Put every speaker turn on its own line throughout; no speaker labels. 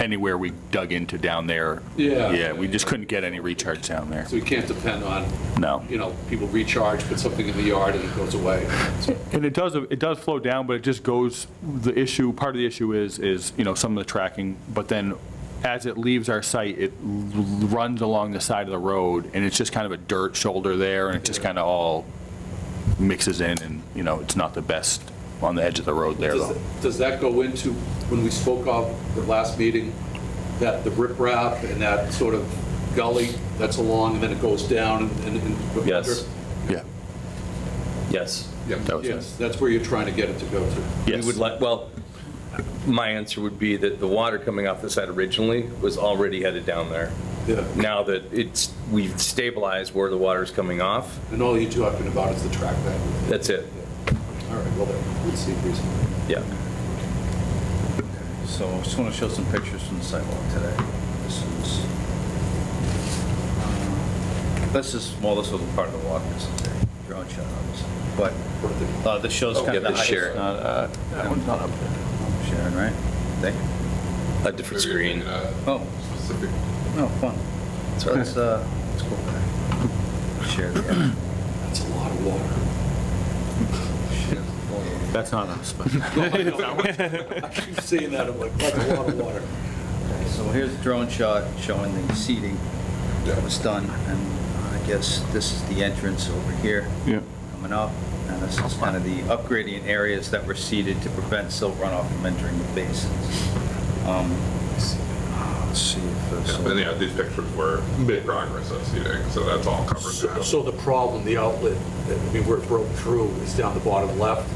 anywhere we dug into down there.
Yeah.
Yeah, we just couldn't get any recharge down there.
So we can't depend on,
No.
you know, people recharge, put something in the yard and it goes away. So,
And it does, it does flow down, but it just goes, the issue, part of the issue is, is, you know, some of the tracking, but then as it leaves our site, it l- runs along the side of the road, and it's just kind of a dirt shoulder there, and it just kind of all mixes in, and, you know, it's not the best on the edge of the road there,
Does
though.
does that go into, when we spoke of the last meeting, that the riprap and that sort of gully that's along and then it goes down and- and? and-
Yes.
Yeah.
Yes.
Yeah,
That was it.
Yes, that's where you're trying to get it to go to.
We would like, well, my answer would be that the water coming off the site originally was already headed down there.
Yeah.
Now that it's, we've stabilized where the water's coming off,
And all you're talking about is the track back.
that's it.
All right, well, then, let's see, please.
Yeah.
So I just want to show some pictures from the sidewalk today. This is, um, this is, well, this was part of the walk, this is a drone shot, obviously. But uh, this shows
Oh,
kind
give
of the
this
height.
Sharon.
Not, uh, That one's not up there. Sharon, right? Thank you.
A different screen.
Oh. Oh, fun. So that's, uh, that's cool. Share the,
That's a lot of water.
share the.
That's not us, but.
I keep saying that, I'm like, that's a lot of water.
Okay, So here's a drone shot showing the seating that was done, and I guess this is the entrance over here.
Yeah.
Coming up, and this is kind of the upgrading areas that were seeded to prevent silt runoff from entering the basins. Um, Let's see if this.
And yeah, these pictures were progress of seating, so that's all covered now.
So the problem, the outlet, I mean, where it broke through is down the bottom left.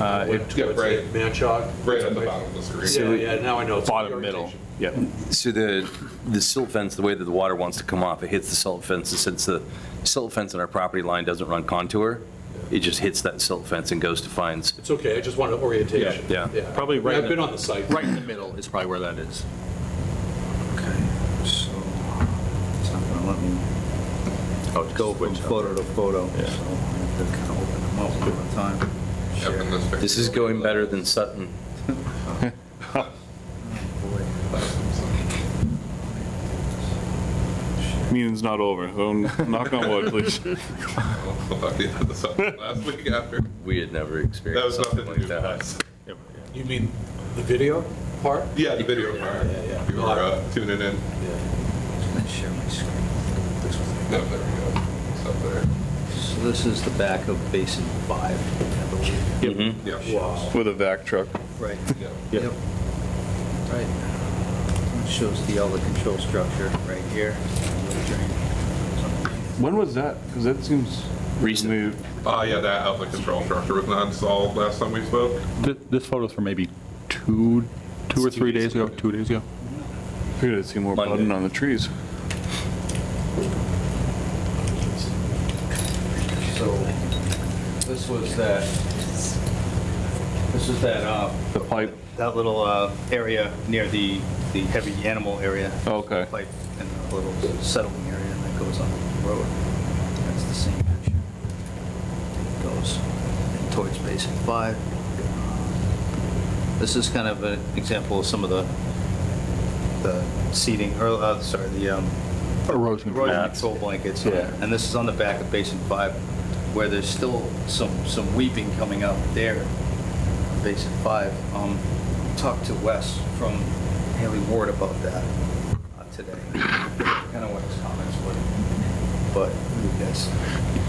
Uh, it-
Went Towards
yeah,
the
right.
Manchog.
Right at the bottom of the screen.
Yeah, yeah, now I know. it's
Bottom
the
middle,
orientation.
yeah.
So the, the silt fence, the way that the water wants to come off, it hits the silt fence. And Since the silt fence on our property line doesn't run contour, it just hits that silt fence and goes to fines.
It's okay, I just wanted orientation.
Yeah, yeah.
Probably right
I've
in-
been on the site.
Right in the middle is probably where that is.
Okay, so it's not going to let me
Oh, it's
go from photo to photo, so I have to kind of open them up one at a time.
Yep, and this picture-
This is going better than Sutton.
Meeting's not over. So knock on wood, please.
We had this up Last week after,
We had never
that was
experienced
nothing
something
to do
like that.
with us.
You mean the video part?
Yeah, the video part,
yeah, yeah.
people are uh, tuning in.
Let's share my screen. This was
No, there we go, it's up there.
So this is the back of Basin 5, I believe.
Mhm.
Yeah.
Wow.
With a vac truck.
Right.
Yeah.
Yep. Right. It Shows the outlet control structure right here.
When was that? Because that seems
Recent.
Moved.
Oh, yeah, that outlet control structure was not installed last time we spoke.
Th- This photo's from maybe two, two or three days ago, two days ago.
Figured I'd see more
Monday.
budding on the trees.
So this was that, this is that, uh,
The pipe.
that little uh, area near the, the heavy animal area.
Okay.
Like, and a little settling area that goes on the road. That's the same picture. It Goes towards Basin 5. This is kind of an example of some of the, the seating, or, uh, sorry, the um,
Erosion
erosion
mats.
control blankets.
Yeah.
And this is on the back of Basin 5, where there's still some, some weeping coming up there Basin 5. Um, Talked to Wes from Haley Ward about that uh, today. Kind of what his comments were. But you guys,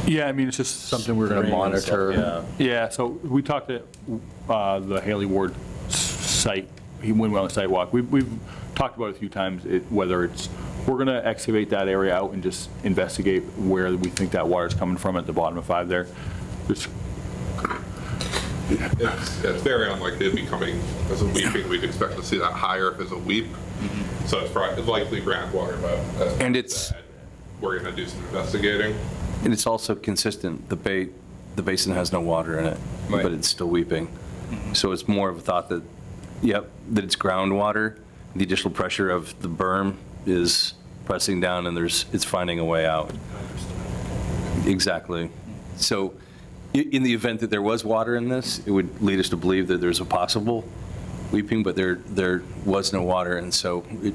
Yeah, I mean, it's just something we're going to
Spraying and stuff,
monitor. Yeah, so we talked to uh, the Haley Ward s- site, he went on the sidewalk. We've, we've talked about it a few times, it- whether it's, we're going to excavate that area out and just investigate where we think that water's coming from at the bottom of five there. Just
It's, it's very unlikely to be coming as a weeping, we'd expect to see that higher if it's a weep. So it's probably likely groundwater, but. that's
And
not
it's-
bad. We're gonna do some investigating.
And it's also consistent, the ba, the basin has no water in it, but
Right.
it's still weeping. So it's more of a thought that, yep, that it's groundwater, the additional pressure of the berm is pressing down and there's, it's finding a way out. Exactly. So i- in the event that there was water in this, it would lead us to believe that there's a possible weeping, but there, there was no water, and so it